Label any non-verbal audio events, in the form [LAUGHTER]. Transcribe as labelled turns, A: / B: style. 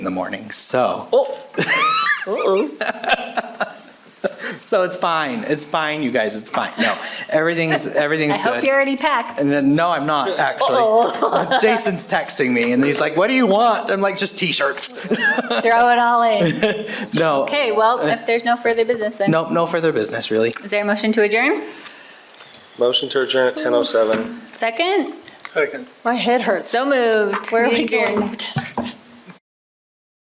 A: in the morning. So,
B: Uh-oh.
A: [LAUGHS] so it's fine. It's fine, you guys. It's fine. No, everything's everything's
B: [LAUGHS] I hope
A: good.
B: you're already packed.
A: and then no, I'm not
B: [LAUGHS]
A: actually. Jason's texting me, and he's like, "What do you want?" I'm like, "Just t-shirts."
B: Throw it all in.
A: No,
B: Okay, well, if there's no further business, then
A: nope, no further business really.
B: is there a motion to adjourn?
C: Motion to adjourn at 10:07.
B: Second?
D: Second.
E: My head hurts.
B: So moved.
E: Where are we
B: Adjourn.
E: going?